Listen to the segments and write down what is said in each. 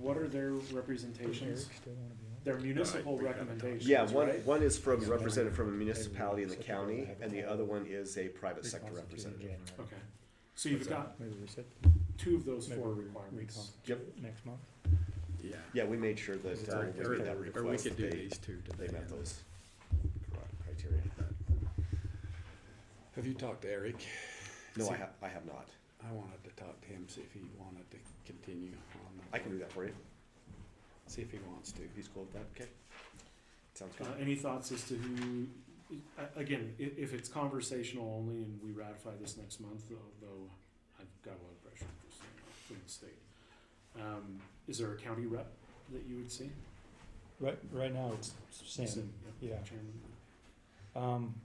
what are their representations? Their municipal we haven't talked. recommendations, Yeah, one, right? one is from, Yeah. represented from a municipality in the county, Everyone. and the other one is a private sector representative. Okay, so you've got Maybe we set, two of those maybe four we- we talk requirements. Yep. next month. Yeah. Yeah, we made sure that, uh, Or- when we made that Or or we request, could that do they, these two they today. met those criteria. Have you talked to Eric? No, I See- have, I have not. I wanted to talk to him, see if he wanted to continue on. I can do that for you. See if he wants to. He's cool with that, okay? Sounds Uh, good. any thoughts as to who, a- again, i- if it's conversational only and we ratify this next month, though, though I've got a lot of pressure just, you know, from the state. Um, is there a county rep that you would see? Right, right now, it's Sam. Sim, Yeah. Chairman. Um,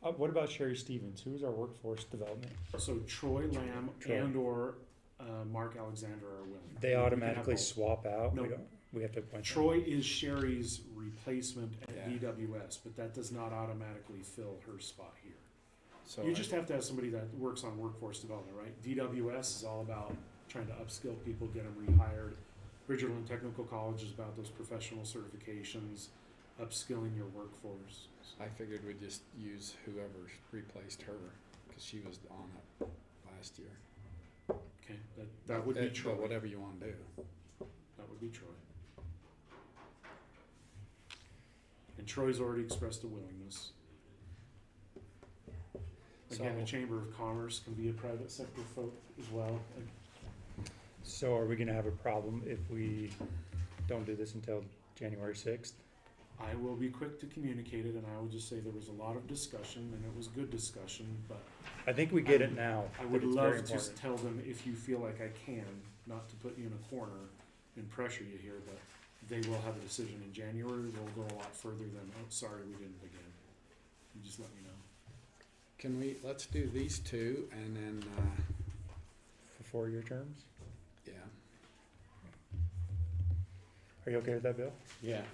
uh, what about Sherry Stevens? Who is our workforce development? So Troy Lamb Troy. and or, uh, Mark Alexander are willing. We They can have automatically both. swap out? We No. don't, we have to appoint them? Troy is Sherry's replacement at Yeah. DWS, but that does not automatically fill her spot here. So You I- just have to have somebody that works on workforce development, right? DWS is all about trying to upskill people, get them rehired. Bridgerland Technical College is about those professional certifications, upskilling your workforce. I figured we'd just use whoever replaced her, cause she was on it last year. Okay, that, that would Eh, be but Troy. Whatever you wanna do. That would be Troy. And Troy's already expressed a willingness. Again, the So- Chamber of Commerce can be a private sector folk as well. So are we gonna have a problem if we don't do this until January sixth? I will be quick to communicate it and I will just say there was a lot of discussion and it was good discussion, but I think we get it now. I that would it's very love to s- important. tell them if you feel like I can, not to put you in a corner and pressure you here, but they will have a decision in January. We'll go a lot further than, oh, sorry, we didn't begin. You just let me know. Can we, let's do these two and then, uh, For four-year terms? yeah. Are you okay with that, Bill? Yeah,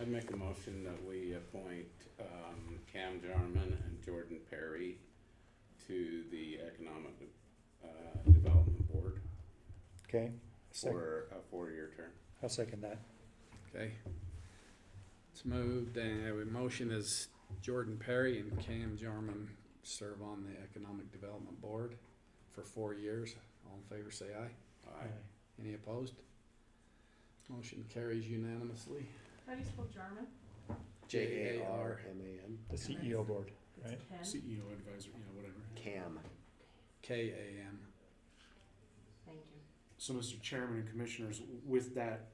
I'd make a motion that we appoint um, Cam Jarman and Jordan Perry to the Economic uh, Development Board Okay, Second. for a four-year term. I'll second that. Okay. It's moved, and the motion is Jordan Perry and Cam Jarman serve on the Economic Development Board for four years. All in favor, say aye. Aye. Any opposed? Motion carries unanimously. How do you spell Jarman? J A R M A N, The CEO board, right? Ken? CEO E advisor, you know, whatever. CAM. K A M. Thank you. So, Mr. Chairman and Commissioners, with that,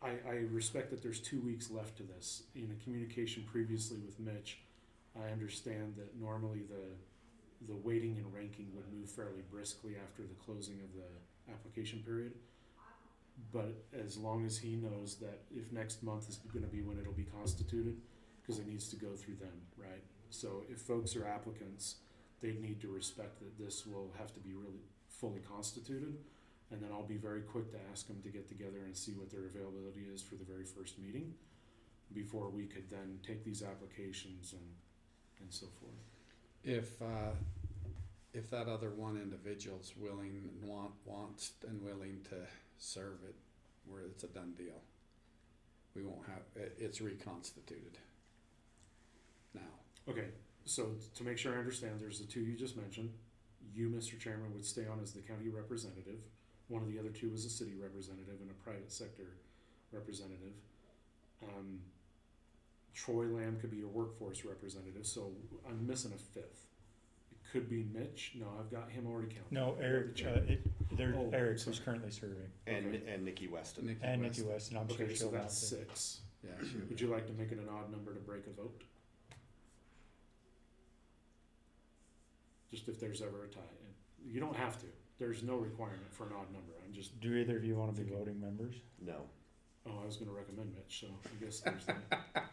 I, I respect that there's two weeks left to this. In a communication previously with Mitch, I understand that normally the, the weighting and ranking would move fairly briskly after the closing of the application period. But as long as he knows that if next month is gonna be when it'll be constituted, cause it needs to go through them, right? So if folks are applicants, they need to respect that this will have to be really fully constituted. And then I'll be very quick to ask them to get together and see what their availability is for the very first meeting before we could then take these applications and, and so forth. If, uh, if that other one individual's willing and want, wants and willing to serve it, where it's a done deal. We won't have, it, it's reconstituted. Now. Okay, so to make sure I understand, there's the two you just mentioned. You, Mr. Chairman, would stay on as the county representative. One of the other two is a city representative and a private sector representative. Um, Troy Lamb could be your workforce representative, so I'm missing a fifth. It could be Mitch. No, I've got him already counted. No, Eric, uh, Chairman. it, there, Oh, Eric sorry. who's currently serving, And, Okay. and Nikki Weston. Nikki and West. Nikki West, and I'm sure Okay, so she'll that's bounce it. six. Yeah, sure. Would you like to make it an odd number to break a vote? Just if there's ever a tie. And You don't have to. There's no requirement for an odd number. I'm just, Do either of you wanna be voting members? No. oh, I was gonna recommend Mitch, so I guess there's that.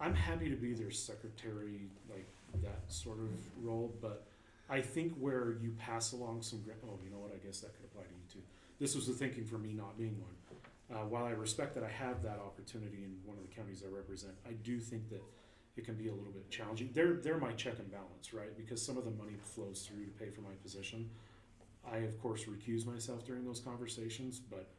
I'm happy to be their secretary, like that sort of role, but I think where you pass along some, gra- oh, you know what, I guess that could apply to you too. This was the thinking for me not being one. Uh, while I respect that I have that opportunity in one of the counties I represent, I do think that it can be a little bit challenging. They're, they're my check and balance, right? Because some of the money flows through to pay for my position. I, of course, recuse myself during those conversations, but